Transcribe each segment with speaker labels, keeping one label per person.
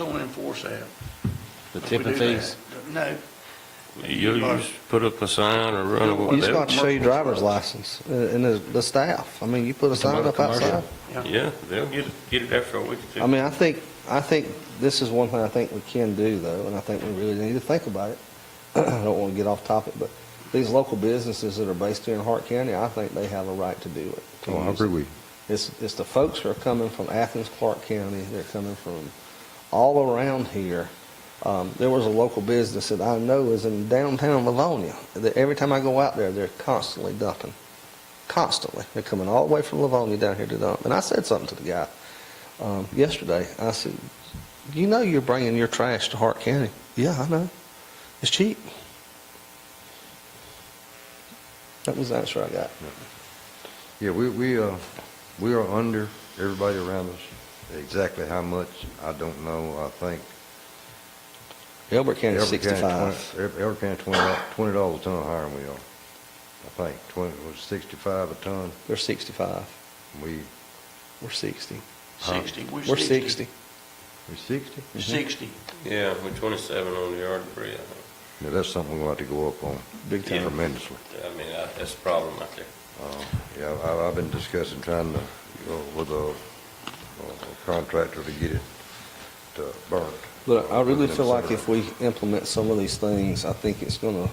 Speaker 1: Don't enforce that. If
Speaker 2: The
Speaker 1: we
Speaker 2: tipping
Speaker 1: do that,
Speaker 2: fees?
Speaker 1: No,
Speaker 3: You'll just put up a sign or run away.
Speaker 4: You just got to show your driver's license uh, and the, the staff. I mean, you put a sign up outside.
Speaker 3: Yeah, they'll get it, get it after a week or two.
Speaker 4: I mean, I think, I think this is one thing I think we can do though, and I think we really need to think about it. I don't want to get off topic, but these local businesses that are based here in Hart County, I think they have a right to do it. to
Speaker 5: Oh, I
Speaker 4: use
Speaker 5: agree
Speaker 4: it.
Speaker 5: with you.
Speaker 4: It's, it's the folks who are coming from Athens, Clark County, they're coming from all around here. Um, there was a local business that I know is in downtown Livonia, that every time I go out there, they're constantly dumping. Constantly. They're coming all the way from Livonia down here to dump. And I said something to the guy, um, yesterday. I said, you know you're bringing your trash to Hart County. Yeah, I know. It's cheap. That was the answer I got.
Speaker 5: Yeah, we, we, uh, we are under everybody around us. Exactly how much, I don't know. I think.
Speaker 4: Elbert County,
Speaker 5: Elbert County,
Speaker 4: 65.
Speaker 5: 20 Elbert County, twenty, doll- twenty dollars a ton higher than we are. I think twenty, was sixty-five a ton.
Speaker 4: They're 65.
Speaker 5: We,
Speaker 4: We're 60.
Speaker 1: sixty, we're
Speaker 4: We're Mm-hmm. 60.
Speaker 5: we sixty?
Speaker 1: Sixty.
Speaker 3: Yeah, we're twenty-seven on the yard debris, I think.
Speaker 5: Now, that's something we'll have to go up on
Speaker 4: Big time.
Speaker 5: tremendously.
Speaker 3: I mean, I- that's a problem out there.
Speaker 5: Uh, Yeah, I, I've been discussing trying to, you know, with a, a contractor to get it, uh, burned.
Speaker 4: But I really
Speaker 5: Put it in
Speaker 4: feel like if
Speaker 5: incinerator.
Speaker 4: we implement some of these things, I think it's going to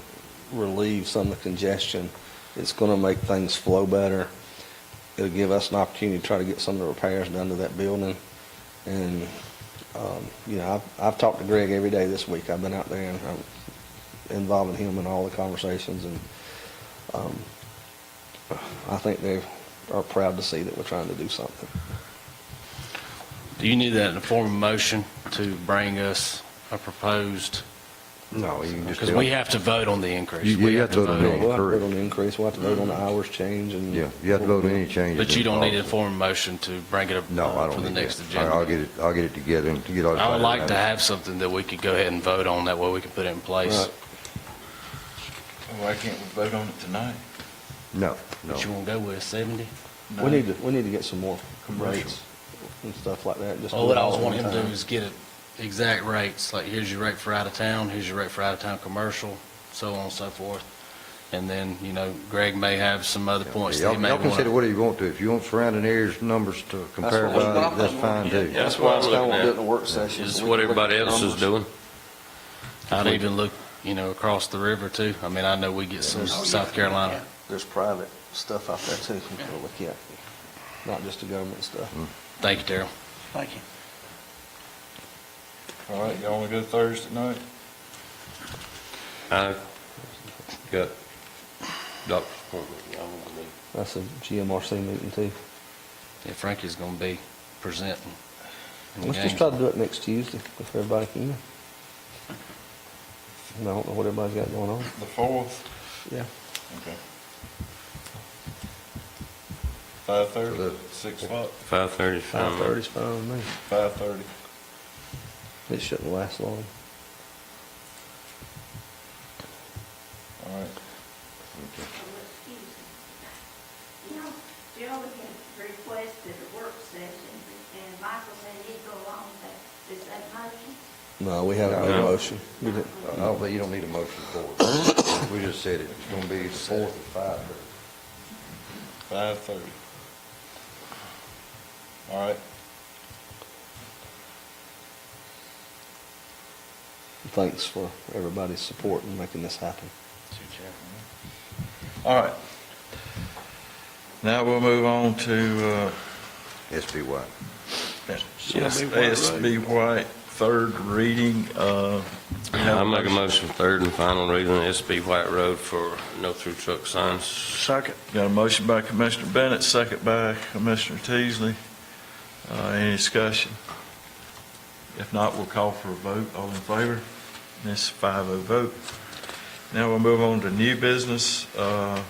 Speaker 4: relieve some of the congestion. It's going to make things flow better. It'll give us an opportunity to try to get some of the repairs done to that building. And, um, you know, I've, I've talked to Greg every day this week. I've been out there and I'm involving him in all the conversations and, um, I think they are proud to see that we're trying to do something.
Speaker 2: Do you need that in the form of motion to bring us a proposed?
Speaker 5: No, you can just.
Speaker 2: Because
Speaker 5: tell-
Speaker 2: we have to vote on the increase.
Speaker 5: You-
Speaker 2: We
Speaker 5: you
Speaker 2: have to
Speaker 5: have to vote
Speaker 2: vote on
Speaker 5: on it.
Speaker 4: We'll have to
Speaker 5: Correct.
Speaker 4: vote on the increase, we'll have to vote on the hours change and.
Speaker 5: Mm-hmm. Yeah, you have to vote any changes.
Speaker 2: But you
Speaker 5: in
Speaker 2: don't need a
Speaker 5: policy.
Speaker 2: form of motion to bring it up
Speaker 5: No, I
Speaker 2: uh,
Speaker 5: don't.
Speaker 2: for the
Speaker 5: need that.
Speaker 2: next
Speaker 5: I-
Speaker 2: agenda.
Speaker 5: I'll get it, I'll get it together and get all.
Speaker 2: I would like to have something that we could go ahead and vote on, that way we can put it in place.
Speaker 4: Right.
Speaker 6: Why can't we vote on it tonight?
Speaker 5: No, no.
Speaker 2: What you want to go with, 70?
Speaker 4: We need to, we need to get some more
Speaker 5: Commercial.
Speaker 4: rates and stuff like that. just
Speaker 2: Well, what I
Speaker 4: all
Speaker 2: was
Speaker 4: at
Speaker 2: wanting
Speaker 4: one
Speaker 2: him to do
Speaker 4: time.
Speaker 2: is get it exact rates, like here's your rate for out of town, here's your rate for out of town commercial, so on and so forth. And then, you know, Greg may have some other points that
Speaker 5: Y'all
Speaker 2: he may
Speaker 5: y'all
Speaker 2: want to.
Speaker 5: consider whatever you want to. If you want surrounding areas numbers to compare
Speaker 4: what we
Speaker 5: by,
Speaker 4: got.
Speaker 5: that's fine too.
Speaker 3: Yeah.
Speaker 4: That's why I was
Speaker 3: looking
Speaker 4: kind of
Speaker 3: at.
Speaker 4: doing the work session.
Speaker 3: It's what everybody else is doing.
Speaker 2: I'd even look, you know, across the river too. I mean, I know we get some South Carolina.
Speaker 4: There's private stuff out there too, we gotta look at, not just the government stuff.
Speaker 2: Thank you, Daryl.
Speaker 1: Thank you.
Speaker 6: All right, y'all wanna go Thursday night?
Speaker 3: I got doctor's appointment, I won't be.
Speaker 4: That's a GMRC meeting too.
Speaker 2: Yeah, Frankie's gonna be presenting. in the
Speaker 4: Let's just
Speaker 2: game.
Speaker 4: try to do it next Tuesday if everybody can. I don't know what everybody's got going on.
Speaker 6: The fourth?
Speaker 4: Yeah.
Speaker 6: Okay. Five
Speaker 5: So
Speaker 6: thirty,
Speaker 5: that's-
Speaker 6: six o'clock,
Speaker 3: Five thirty,
Speaker 4: Five
Speaker 3: fine.
Speaker 4: thirty's fine with me.
Speaker 6: five thirty.
Speaker 4: It shouldn't last long.
Speaker 6: All right.
Speaker 7: You know, Joe had requested a work session, and Michael said he'd go along with that. Is that motion?
Speaker 4: No, we haven't made a
Speaker 3: No.
Speaker 4: motion. We didn't.
Speaker 5: I don't think, you don't need a motion for it. We just said it. It's gonna be the fourth and five.
Speaker 6: Five thirty. All right,
Speaker 4: Thanks for everybody's support in making this happen.
Speaker 6: all right. Now we'll move on to,
Speaker 5: SBY.
Speaker 6: uh,
Speaker 1: Yes.
Speaker 6: SB White, third reading, uh. we have
Speaker 3: I make a motion, third and final reading, SB White Road for no through truck signs.
Speaker 1: Second.
Speaker 6: Got a motion by Commissioner Bennett, second by Commissioner Teasley. Uh, Any discussion? If not, we'll call for a vote. All in favor? This is 5-0 vote. Now we'll move on to new business. uh,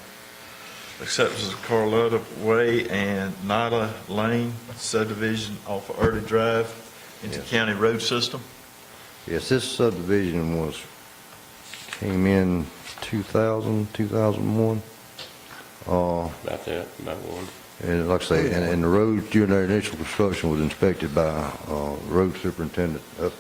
Speaker 6: Acceptance of Carlotta Way and Nida Lane subdivision off of Erta Drive into
Speaker 5: Yes.
Speaker 6: county road system.
Speaker 5: Yes, this subdivision was, came in 2000, 2001. Uh,
Speaker 3: About that, about one.
Speaker 5: And like I say, and, and the road during their initial construction was inspected by, uh, road superintendent up